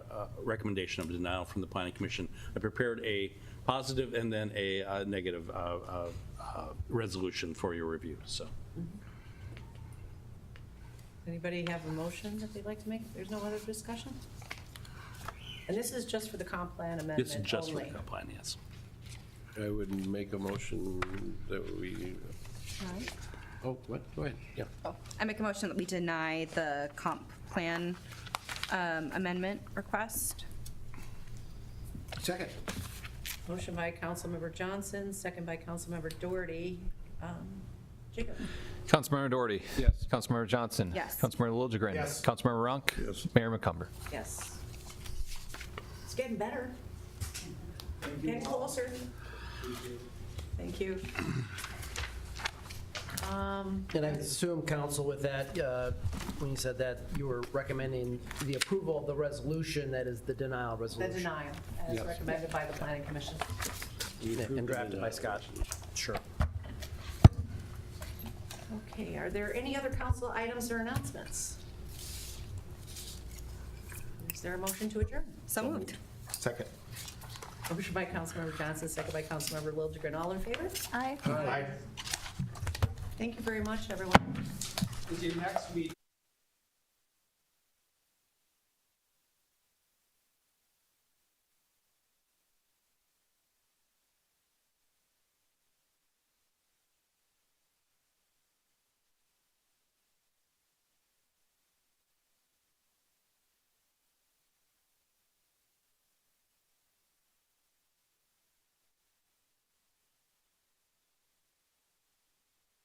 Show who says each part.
Speaker 1: uh, recommendation of denial from the planning commission. I prepared a positive and then a uh, negative uh, uh, uh, resolution for your review, so.
Speaker 2: Anybody have a motion that they'd like to make? There's no other discussion? And this is just for the comp plan amendment
Speaker 1: It's just for the
Speaker 2: only.
Speaker 1: comp plan, yes.
Speaker 3: I would make a motion that we,
Speaker 4: Alright.
Speaker 3: oh, what, go ahead, yeah.
Speaker 4: I make a motion that we deny the comp plan um, amendment request.
Speaker 3: Second.
Speaker 2: Motion by Councilmember Johnson, second by Councilmember Doherty. Um, Jacob?
Speaker 5: Councilmember Doherty.
Speaker 3: Yes.
Speaker 5: Councilmember Johnson.
Speaker 4: Yes.
Speaker 5: Councilmember Liljegren.
Speaker 3: Yes.
Speaker 5: Councilmember Runk.
Speaker 3: Yes.
Speaker 5: Mayor McCumber.
Speaker 2: Yes. It's getting better. Getting closer. Thank you. Um,
Speaker 6: And I assume, counsel, with that, uh, when you said that, you were recommending the approval of the resolution, that is the denial
Speaker 2: The
Speaker 6: resolution.
Speaker 2: denial, as
Speaker 3: Yes.
Speaker 2: recommended by the planning commission.
Speaker 6: And drafted by Scott. Sure.
Speaker 2: Okay, are there any other council items or announcements? Is there a motion to adjourn?
Speaker 4: So moved.
Speaker 3: Second.
Speaker 2: Motion by Councilmember Johnson, second by Councilmember Liljegren. All in favor?
Speaker 4: Aye.
Speaker 2: Thank you very much, everyone.
Speaker 7: Until next week.